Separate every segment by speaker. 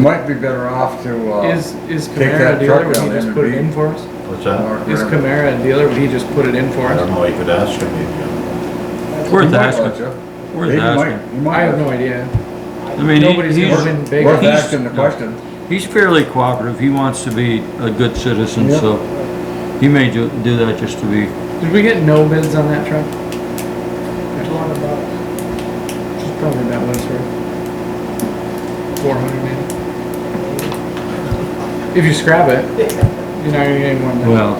Speaker 1: Might be better off to, uh.
Speaker 2: Is, is
Speaker 1: take
Speaker 2: Camara
Speaker 1: that
Speaker 2: a dealer,
Speaker 1: truck
Speaker 2: would he
Speaker 1: down there
Speaker 2: just
Speaker 1: and
Speaker 2: put it
Speaker 1: beat-
Speaker 2: in for us?
Speaker 3: What's that?
Speaker 1: or
Speaker 2: Is
Speaker 1: whatever.
Speaker 2: Camara a dealer, would he just put it in for
Speaker 3: I don't
Speaker 2: us?
Speaker 3: know, you could ask him if
Speaker 4: Worth
Speaker 1: He might
Speaker 4: asking.
Speaker 1: let you.
Speaker 4: Worth
Speaker 1: He might-
Speaker 4: asking.
Speaker 1: he might
Speaker 2: I have
Speaker 1: let
Speaker 2: no idea.
Speaker 4: I mean,
Speaker 2: Nobody's
Speaker 4: he-
Speaker 2: ever
Speaker 4: he's,
Speaker 2: been
Speaker 1: you.
Speaker 2: big.
Speaker 1: Worth
Speaker 4: He's-
Speaker 1: asking the question.
Speaker 4: he's fairly cooperative, he wants to be a good citizen,
Speaker 1: Yeah.
Speaker 4: so he may ju- do that just to be,
Speaker 2: Did we get no bids on that truck? It's probably about what it's worth. Four hundred maybe. If you scrap it, you're not gonna get any more than that.
Speaker 4: well,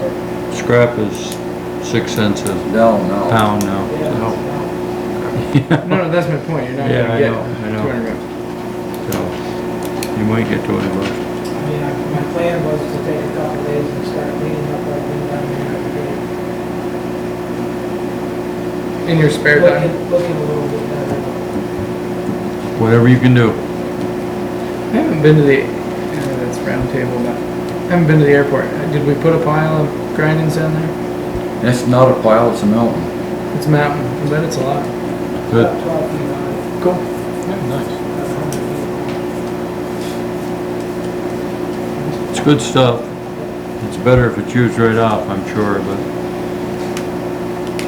Speaker 4: scrap is six cents a
Speaker 1: No, no.
Speaker 4: pound now.
Speaker 2: No, no, that's my point, you're not
Speaker 4: Yeah,
Speaker 2: gonna
Speaker 4: I
Speaker 2: get
Speaker 4: know, I know.
Speaker 2: two hundred bucks.
Speaker 4: So, You might get to it, but
Speaker 5: I mean, I- my plan was to take a couple days and start cleaning up what I've been down there. and
Speaker 2: In
Speaker 5: getting-
Speaker 2: your spare time?
Speaker 5: Looking, looking a little bit better.
Speaker 4: whatever you can do.
Speaker 2: I haven't been to the, uh, that's round table, but, I haven't been to the airport. Uh, Did we put a pile of grindings down there?
Speaker 1: It's not a pile, it's a mountain.
Speaker 2: It's mountain, I bet it's a lot.
Speaker 4: Good.
Speaker 5: About twelve feet high,
Speaker 2: Cool.
Speaker 5: about a hundred feet.
Speaker 4: It's good stuff. It's better if it's used right off, I'm sure, but.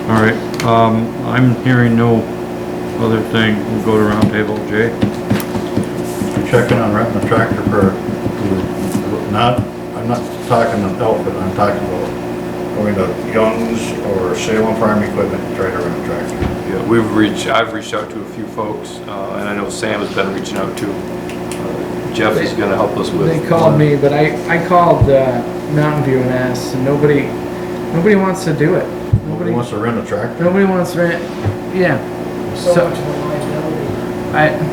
Speaker 4: All right, um, I'm hearing no other thing. We'll go to roundtable. Jay?
Speaker 3: you checking on renting a tractor for, not, I'm not talking about outfit, I'm talking about going to Young's or Salem Farm Equipment, and try to rent a tractor.
Speaker 6: Yeah, we've reached, I've reached out to a few folks, uh, and I know Sam has been reaching out to. Uh, Jeff is gonna help us with.
Speaker 2: They called me, but I, I called, uh, Mountain View and asked, and nobody, nobody wants to do it.
Speaker 3: Nobody wants to rent a tractor?
Speaker 2: Nobody wants to rent, yeah.
Speaker 5: So
Speaker 2: So-
Speaker 5: much of a liability.
Speaker 2: I,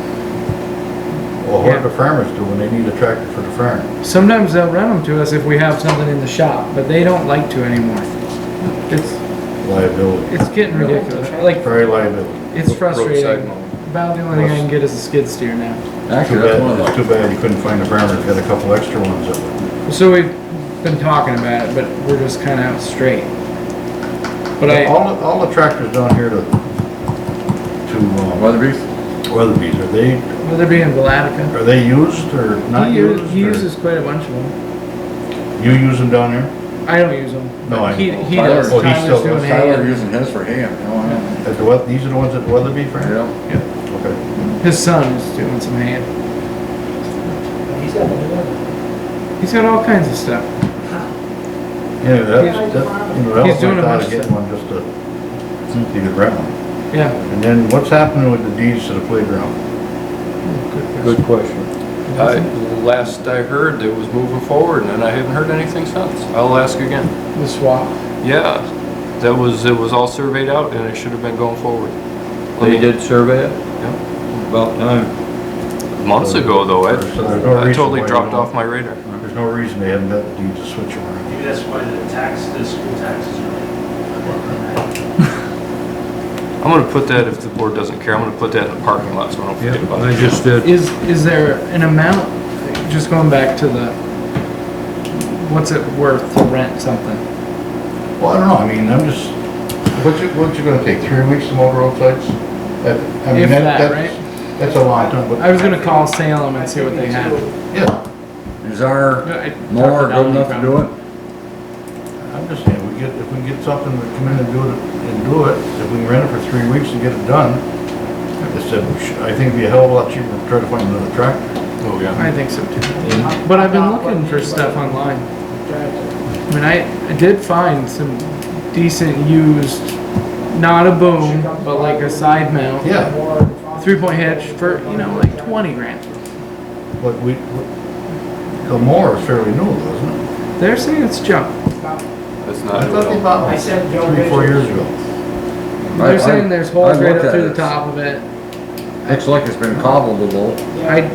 Speaker 3: Well, what do the farmers do when they need a tractor for the farm?
Speaker 2: sometimes they'll rent them to us if we have something in the shop, but they don't like to anymore. It's,
Speaker 3: Liability,
Speaker 2: it's getting ridiculous. Like,
Speaker 3: very liability.
Speaker 2: it's
Speaker 6: Roadside
Speaker 2: frustrating.
Speaker 6: mowing.
Speaker 2: About the only thing I can get is a skid steer now.
Speaker 1: Actually,
Speaker 3: Too
Speaker 1: that's one of
Speaker 3: bad, it's
Speaker 1: the,
Speaker 3: too bad you couldn't find a farmer that had a couple extra ones of them.
Speaker 2: So we've been talking about it, but we're just kind of out straight. But I,
Speaker 3: All, all the tractors down here to, to, uh,
Speaker 1: Weatherby's,
Speaker 3: Weatherby's, are they,
Speaker 2: whether it be in Velatica,
Speaker 3: Are they used or not
Speaker 2: he
Speaker 3: used?
Speaker 2: u- he
Speaker 3: or-
Speaker 2: uses quite a bunch of them.
Speaker 3: You use them down there
Speaker 2: I don't use them.
Speaker 3: No, I
Speaker 2: He,
Speaker 3: know.
Speaker 2: he
Speaker 1: Tyler-
Speaker 2: does.
Speaker 3: oh, he
Speaker 2: Tyler's
Speaker 3: still
Speaker 2: doing
Speaker 3: does.
Speaker 2: hay.
Speaker 1: Tyler
Speaker 2: and-
Speaker 1: using his for ham, you know,
Speaker 3: at the Weth, these are the ones at the Weatherby Fair?
Speaker 1: yeah.
Speaker 3: Yeah. Okay.
Speaker 2: His son is doing some hay.
Speaker 5: But he's got the new one.
Speaker 2: He's got all kinds of stuff.
Speaker 3: Yeah, that's, that, you know, that
Speaker 2: He's
Speaker 3: was
Speaker 2: doing
Speaker 3: my
Speaker 2: a
Speaker 3: thought
Speaker 2: bunch
Speaker 3: of
Speaker 2: of
Speaker 3: getting one just to, you could rent one.
Speaker 2: Yeah.
Speaker 3: And then what's happening with the deeds to the playground?
Speaker 4: Good question.
Speaker 6: I, last I heard, it was moving forward, and I haven't heard anything since. I'll ask again.
Speaker 2: The swap.
Speaker 6: Yeah, that was, it was all surveyed out, and it should have been going forward.
Speaker 4: They did survey it?
Speaker 6: Yeah.
Speaker 4: About time.
Speaker 6: Months ago, though, I,
Speaker 3: So there's no
Speaker 6: I
Speaker 3: reason
Speaker 6: totally
Speaker 3: why you
Speaker 6: dropped
Speaker 3: don't-
Speaker 6: off my radar.
Speaker 3: There's no reason they haven't got the deeds to switch around.
Speaker 7: Maybe that's why the tax, the school taxes are like.
Speaker 6: I'm gonna put that, if the board doesn't care, I'm gonna put that in the parking lot, so I don't forget
Speaker 4: Yeah,
Speaker 6: about
Speaker 4: I
Speaker 6: it.
Speaker 4: just did.
Speaker 2: Is, is there an amount, just going back to the, what's it worth to rent something?
Speaker 3: Well, I don't know, I mean, I'm just, what's it, what's it gonna take, three weeks to mow the roadsides? That- I mean,
Speaker 2: If
Speaker 3: that-
Speaker 2: that,
Speaker 3: that's- That's a long time, but,
Speaker 2: I was gonna call Salem and see what they had.
Speaker 3: yeah,
Speaker 1: Is our
Speaker 2: I talked to
Speaker 1: mower good
Speaker 2: Dominic
Speaker 1: enough to
Speaker 2: about
Speaker 1: do it?
Speaker 3: I'm just saying, we get, if we get something to come in and do it, and do it, if we can rent it for three weeks and get it done, I said, we should- I think it'd be a hell of a lot cheaper to try to find another tractor.
Speaker 6: Oh, yeah.
Speaker 2: I think so too.
Speaker 5: How-
Speaker 2: But I've been
Speaker 5: about what
Speaker 2: looking for
Speaker 5: anybody
Speaker 2: stuff online.
Speaker 5: drives it.
Speaker 2: I mean, I, I did find some decent used, not a boom, but like a side mount.
Speaker 3: Yeah,
Speaker 5: More-
Speaker 2: Three point hitch for, you know, like twenty grand.
Speaker 3: but we, Gilmore is fairly new, isn't it?
Speaker 2: They're saying it's junk.
Speaker 6: That's
Speaker 3: I
Speaker 6: not.
Speaker 3: thought they bought
Speaker 5: I
Speaker 3: one
Speaker 5: said Joe
Speaker 3: three, four years
Speaker 5: Richards.
Speaker 3: ago.
Speaker 1: I- I-
Speaker 2: They're saying there's holes
Speaker 1: I
Speaker 2: right
Speaker 1: looked
Speaker 2: up
Speaker 1: at
Speaker 2: through
Speaker 1: it.
Speaker 2: the top of it.
Speaker 1: Looks like it's been cobbled a little.
Speaker 2: I,
Speaker 5: Yeah,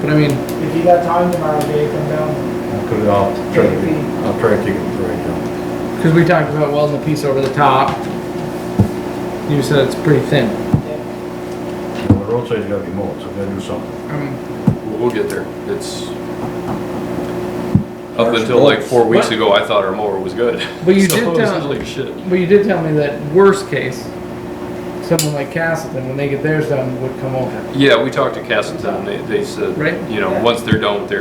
Speaker 2: but I mean,
Speaker 5: if you got time tomorrow, Jay, come down.
Speaker 3: Could, I'll try to, I'll try to take it right now.
Speaker 2: cause we talked about welding a piece over the top. You said it's pretty thin.
Speaker 3: Well, The roadside's gotta be mowed, so we gotta do something.
Speaker 2: Um,
Speaker 6: We'll get there. It's, up until like four weeks
Speaker 2: What?
Speaker 6: ago, I thought our mower was good.
Speaker 2: But you
Speaker 6: So
Speaker 2: did
Speaker 6: it was
Speaker 2: tell-
Speaker 6: Like shit.
Speaker 2: But you did tell me that worst case, someone like Castleton, when they get theirs done, would come over.
Speaker 6: Yeah, we talked to Castleton, they, they said,
Speaker 2: Right.
Speaker 6: you know, once they're done with their